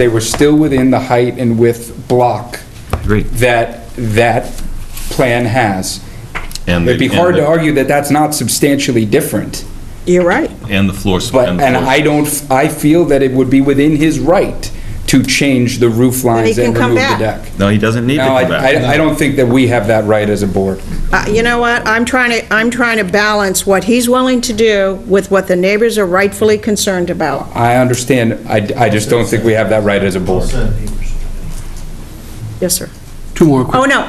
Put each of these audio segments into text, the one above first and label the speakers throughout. Speaker 1: They were still within the height and width block
Speaker 2: Agreed.
Speaker 1: that that plan has.
Speaker 2: And
Speaker 1: It'd be
Speaker 2: the-
Speaker 1: hard
Speaker 2: and
Speaker 1: to
Speaker 2: the-
Speaker 1: argue that that's not substantially different,
Speaker 3: You're right.
Speaker 2: And the floor. sp-
Speaker 1: but,
Speaker 2: the
Speaker 1: and
Speaker 2: floor
Speaker 1: I don't, I feel that it would be within his right to change the roof lines
Speaker 3: can
Speaker 1: and
Speaker 3: come
Speaker 1: remove the
Speaker 3: back.
Speaker 1: deck.
Speaker 2: sp- No, he doesn't need to
Speaker 1: No, I,
Speaker 2: come back.
Speaker 1: I I don't think that we have that right as a board.
Speaker 3: Uh, You know what? I'm trying to, I'm trying to balance what he's willing to do with what the neighbors are rightfully concerned about.
Speaker 1: I understand, I, I just don't think we have that right as a board.
Speaker 3: Yes, sir.
Speaker 4: Two more
Speaker 3: Oh,
Speaker 4: quick.
Speaker 3: no.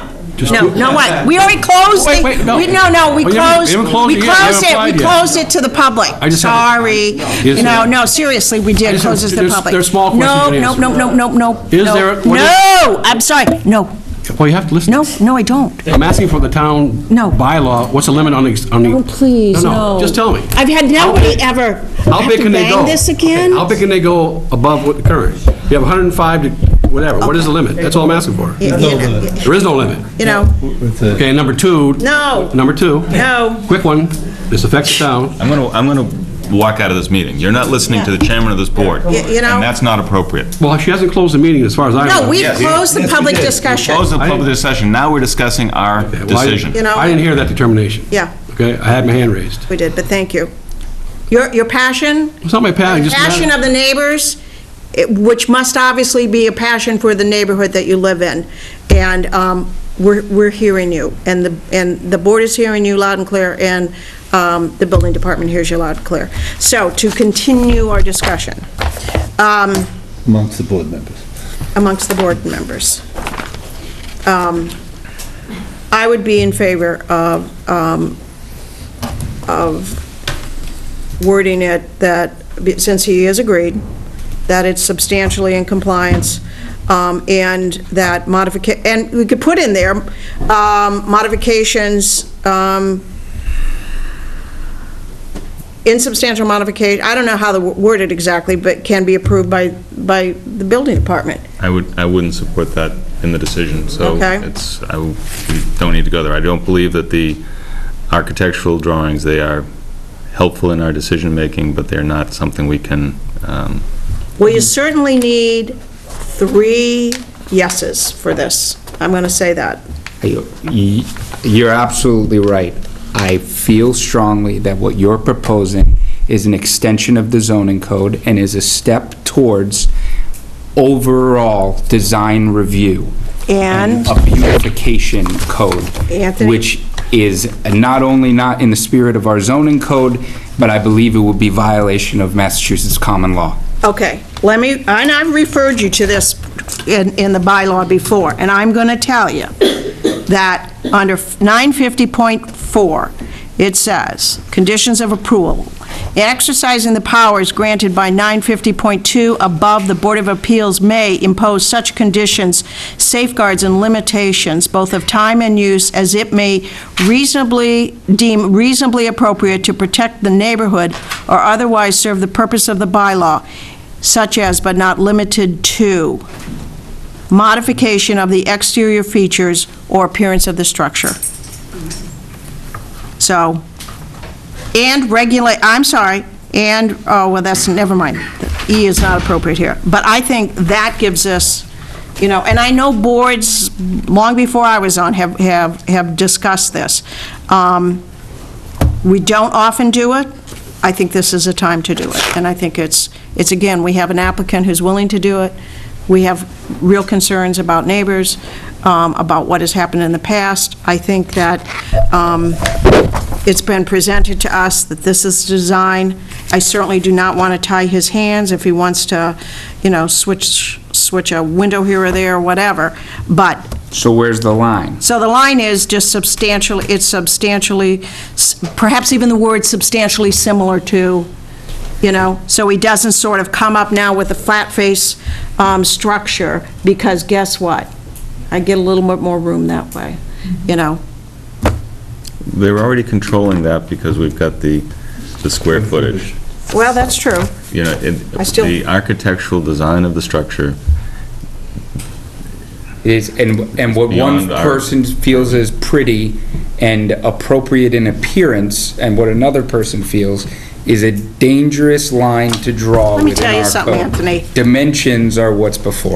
Speaker 3: No, no, what? We already closed
Speaker 4: Wait,
Speaker 3: the-
Speaker 4: wait, no.
Speaker 3: we- No, no, we
Speaker 4: Well, you haven't-
Speaker 3: closed,
Speaker 4: you haven't closed
Speaker 3: we
Speaker 4: it yet. You haven't
Speaker 3: closed it, we
Speaker 4: applied yet.
Speaker 3: closed it to the public.
Speaker 4: I just haven't-
Speaker 3: Sorry. You
Speaker 4: Is
Speaker 3: know,
Speaker 4: there-
Speaker 3: no, seriously, we did
Speaker 4: just
Speaker 3: close
Speaker 4: have-
Speaker 3: it to the
Speaker 4: there's-
Speaker 3: public.
Speaker 4: there's small questions
Speaker 3: No,
Speaker 4: you can
Speaker 3: no,
Speaker 4: answer.
Speaker 3: no, no, no, no.
Speaker 4: Is
Speaker 3: no.
Speaker 4: there- what is-
Speaker 3: No, I'm sorry. No,
Speaker 4: Well, you have to listen.
Speaker 3: no, no, I don't.
Speaker 4: I'm asking for the town
Speaker 3: No.
Speaker 4: bylaw, what's the limit on the... on the-
Speaker 3: Oh, please, no.
Speaker 4: Just tell me.
Speaker 3: I've had nobody ever
Speaker 4: How
Speaker 3: have
Speaker 4: big
Speaker 3: to
Speaker 4: can they go?
Speaker 3: bang this again.
Speaker 4: How big can they go above what the current? You have 105 to whatever, what is the limit? That's all I'm asking for.
Speaker 3: You know-
Speaker 4: There is no limit.
Speaker 3: You know,
Speaker 4: Okay, number two...
Speaker 3: No.
Speaker 4: Number two.
Speaker 3: no,
Speaker 4: Quick one, this affects the town.
Speaker 2: I'm gonna, I'm gonna walk out of this meeting. You're not listening to the chairman of this board.
Speaker 3: Y- you know-
Speaker 2: And that's not appropriate.
Speaker 4: Well, she hasn't closed the meeting as far as I know.
Speaker 3: no, we closed the public discussion.
Speaker 2: Close the public session. Now we're discussing our
Speaker 4: Well, I-
Speaker 2: decision.
Speaker 3: You know-
Speaker 4: I didn't hear that determination.
Speaker 3: Yeah.
Speaker 4: Okay, I had my hand raised.
Speaker 3: We did, but thank you. Your, your passion?
Speaker 4: It's not my passion,
Speaker 3: The
Speaker 4: just a matter-
Speaker 3: Passion of the neighbors, it- which must obviously be a passion for the neighborhood that you live in. And um, we're, we're hearing you, and the, and the board is hearing you loud and clear, and um, the building department hears you loud and clear. So to continue our discussion um,
Speaker 5: amongst the board members.
Speaker 3: amongst the board members, um, I would be in favor of, um, of wording it that, since he has agreed, that it's substantially in compliance, um, and that modifica, and we could put in there, um, modifications, um, insubstantial modification, I don't know how to word it exactly, but can be approved by, by the building department.
Speaker 2: I would, I wouldn't support that in the decision, so
Speaker 3: Okay.
Speaker 2: it's, I, w- we don't need to go there. I don't believe that the architectural drawings, they are helpful in our decision-making, but they're not something we can, um,
Speaker 3: Well, you certainly need three yeses for this. I'm going to say that.
Speaker 1: You- you- You're absolutely right. I feel strongly that what you're proposing is an extension of the zoning code and is a step towards overall design review.
Speaker 3: And-
Speaker 1: A beautification code.
Speaker 3: Anthony?
Speaker 1: Which is not only not in the spirit of our zoning code, but I believe it would be violation of Massachusetts common law.
Speaker 3: Okay, let me, and I've referred you to this in, in the bylaw before, and I'm going to tell you that under 950.4, it says, "Conditions of approval. In Exercising the powers granted by 950.2 above, the Board of Appeals may impose such conditions, safeguards, and limitations, both of time and use, as it may reasonably, deem reasonably appropriate to protect the neighborhood or otherwise serve the purpose of the bylaw, such as but not limited to modification of the exterior features or appearance of the structure. So, and regulate, I'm sorry, and, oh, well, that's, never mind. E is not appropriate here. But I think that gives us, you know, and I know boards, long before I was on, have, have have discussed this. Um, We don't often do it. I think this is a time to do it. And I think it's, it's, again, we have an applicant who's willing to do it. We have real concerns about neighbors, um, about what has happened in the past. I think that um, it's been presented to us that this is design. I certainly do not want to tie his hands if he wants to, you know, switch, switch a window here or there, or whatever. But
Speaker 1: So where's the line?
Speaker 3: so the line is just substantially, it's substantially, s- perhaps even the word substantially similar to, you know, so he doesn't sort of come up now with a flat face um, structure, because guess what? I get a little bit more room that way, you know?
Speaker 2: they're already controlling that because we've got the, the square footage.
Speaker 3: Well, that's true.
Speaker 2: you know, it-
Speaker 3: I still-
Speaker 2: the architectural design of the structure,
Speaker 1: is, and, and what one
Speaker 2: Beyond our-
Speaker 1: person feels is pretty and appropriate in appearance, and what another person feels is a dangerous line to draw
Speaker 3: Let me
Speaker 1: within
Speaker 3: tell you
Speaker 1: our
Speaker 3: something,
Speaker 1: code.
Speaker 3: Anthony.
Speaker 1: Dimensions are what's before